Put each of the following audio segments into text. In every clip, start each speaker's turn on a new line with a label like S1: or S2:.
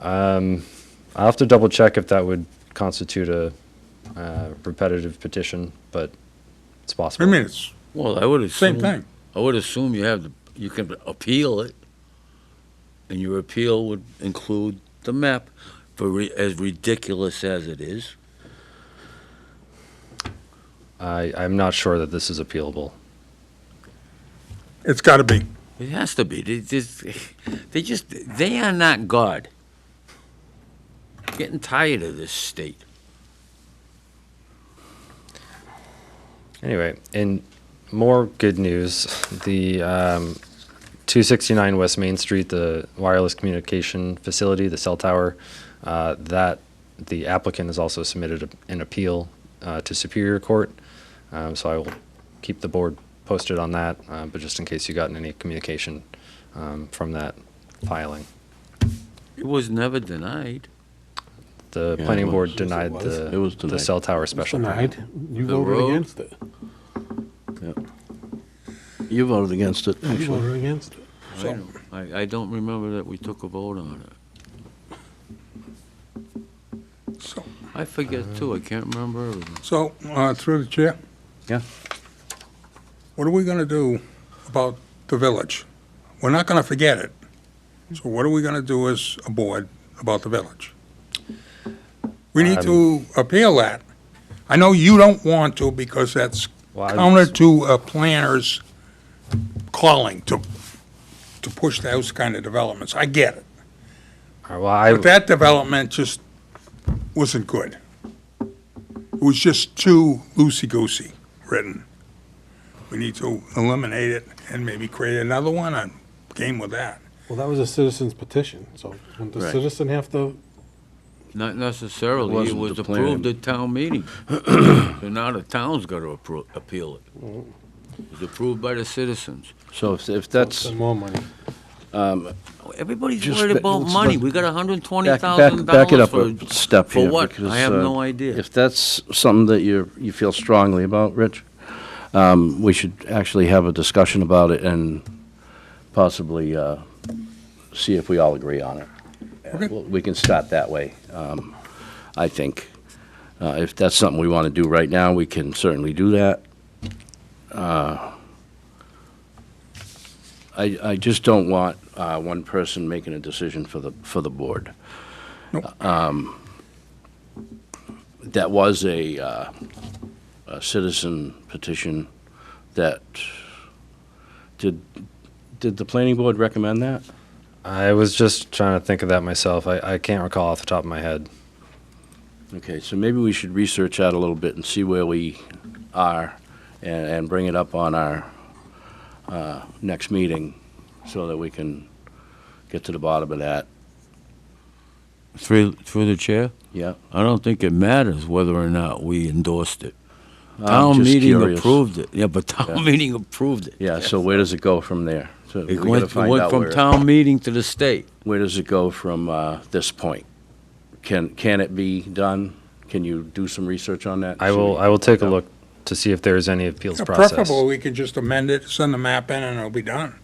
S1: Um, I'll have to double check if that would constitute a uh, repetitive petition, but it's
S2: I
S1: possible.
S2: mean, it's
S3: Well, I would
S2: same
S3: assume.
S2: thing.
S3: I would assume you have, the you can appeal it, and your appeal would include the map, for re- as ridiculous as it is.
S1: I, I'm not sure that this is appealable.
S2: It's got to be.
S3: It has to be. They just, they just, they are not God. Getting tired of this state.
S1: Anyway, in more good news, the um, 269 West Main Street, the wireless communication facility, the cell tower, uh, that the applicant has also submitted a- an appeal uh, to Superior Court. Um, so I will keep the board posted on that, uh, but just in case you gotten any communication um, from that filing.
S3: It was never denied.
S1: The
S4: Yeah,
S1: planning
S4: it
S1: board
S4: was.
S1: denied
S4: Yes, it was. It
S1: the,
S4: was
S1: the
S4: denied.
S1: cell tower special permit.
S4: Denied. You
S3: The
S4: voted
S3: road.
S4: against it.
S5: You voted against it,
S4: You
S5: actually.
S4: voted against it.
S3: I don't- I, I don't remember that we took a vote on it.
S2: So,
S3: I forget too. I can't remember everything.
S2: so uh, through the chair,
S5: Yeah.
S2: what are we going to do about the village? We're not going to forget it. So what are we going to do as a board about the village? We need
S1: Um,
S2: to appeal that. I know you don't want to because that's
S1: Well, I-
S2: counter to a planner's calling to, to push those kind of developments. I get it.
S1: uh, Well, I-
S2: But that development just wasn't good. It was just too loosey-goosey written. We need to eliminate it and maybe create another one. I'm game with that.
S4: Well, that was a citizen's petition, so would the
S3: Right.
S4: citizen have to,
S3: Not
S5: It
S3: necessarily. It
S5: wasn't
S3: was
S5: the
S3: approved
S5: plan.
S3: at town meeting. So now the town's got to appro- appeal it.
S5: Mm-hmm.
S3: It was approved by the citizens.
S5: So if, if that's,
S4: spend more money?
S3: Everybody's
S5: Just
S3: worried
S5: ba-
S3: about
S5: let's
S3: money.
S5: back-
S3: We got hundred and twenty
S5: back, back,
S3: thousand dollars
S5: back
S3: for.
S5: it up a step
S3: for
S5: here.
S3: what?
S5: because,
S3: I have
S5: uh,
S3: no idea.
S5: If that's something that you're, you feel strongly about, Rich, um, we should actually have a discussion about it and possibly, uh, see if we all agree on it.
S2: Okay.
S5: Well, We can start that way, um, I think. Uh, if that's something we want to do right now, we can certainly do that. Uh, I, I just don't want uh, one person making a decision for the, for the board.
S2: Nope.
S5: Um, That was a, uh, a citizen petition that, did, did the planning board recommend that?
S1: I was just trying to think of that myself. I, I can't recall off the top of my head.
S5: Okay, so maybe we should research that a little bit and see where we are and, and bring it up on our uh, next meeting so that we can get to the bottom of that.
S3: Through, through the chair,
S5: Yeah.
S3: I don't think it matters whether or not we endorsed it.
S5: I'm
S3: Town
S5: just
S3: meeting
S5: curious.
S3: approved it. Yeah, but
S5: Yeah.
S3: town meeting approved it.
S5: Yeah, so where does it go from there? So we
S3: It
S5: gotta
S3: went, it
S5: find
S3: went
S5: out
S3: from
S5: where-
S3: town meeting to the state.
S5: Where does it go from uh, this point? Can, can it be done? Can you do some research on that?
S1: I
S5: Should
S1: will,
S5: we-
S1: I will take a look to see if there is any appeals process.
S2: Preferably, we could just amend it, send the map in, and it'll be done.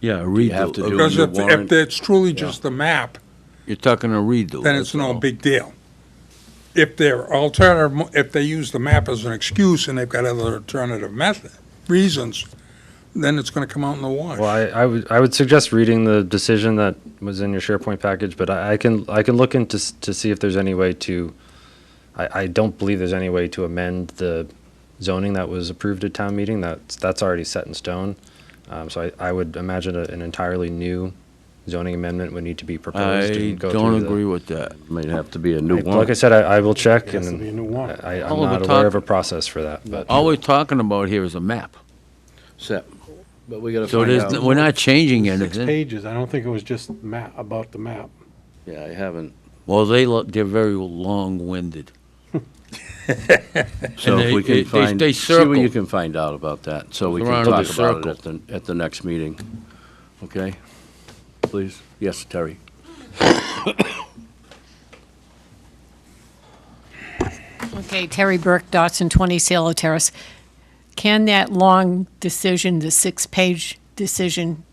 S3: Yeah, a redo.
S5: have to
S3: A-
S5: do-
S2: Because
S5: the
S2: if, if
S5: warrant-
S2: it's truly just the map,
S3: You're talking a redo.
S2: then
S3: that's
S2: it's no
S3: all.
S2: big deal. If they're alternative, mo- if they use the map as an excuse and they've got other alternative method, reasons, then it's gonna come out in the wash.
S1: Well, I, I would, I would suggest reading the decision that was in your SharePoint package, but I, I can, I can look into, s- to see if there's any way to, I, I don't believe there's any way to amend the zoning that was approved at town meeting. That's, that's already set in stone. Um, so I, I would imagine a- an entirely new zoning amendment would need to be proposed.
S3: I
S1: and go
S3: don't
S1: through the-
S3: agree with that.
S5: Might have to be a new
S1: I-
S5: one.
S1: Like I said, I, I will check
S4: It has to be a
S1: and
S4: new warrant.
S1: I, I'm
S3: All the
S1: not aware of a
S3: talk-
S1: process for that, but.
S3: All we're talking about here is a map.
S5: So- But we gotta
S3: So
S5: find
S3: there's,
S5: out.
S3: n- we're not changing
S4: Six
S3: anything.
S4: pages, I don't think it was just map, about the map.
S5: Yeah, I haven't.
S3: Well, they look, they're very long-winded.
S5: So
S3: And
S5: if
S3: they-
S5: we
S3: they-
S5: can
S3: they-
S5: find,
S3: they
S5: see what
S3: circle.
S5: you can find out about that, so we
S3: They're
S5: can
S3: on the
S5: talk about it at the, at the next meeting. Okay? Please? Yes, Terry?
S6: Okay, Terry Burke, Dotson, 20 Salo Terrace. Can that long decision, the six-page decision,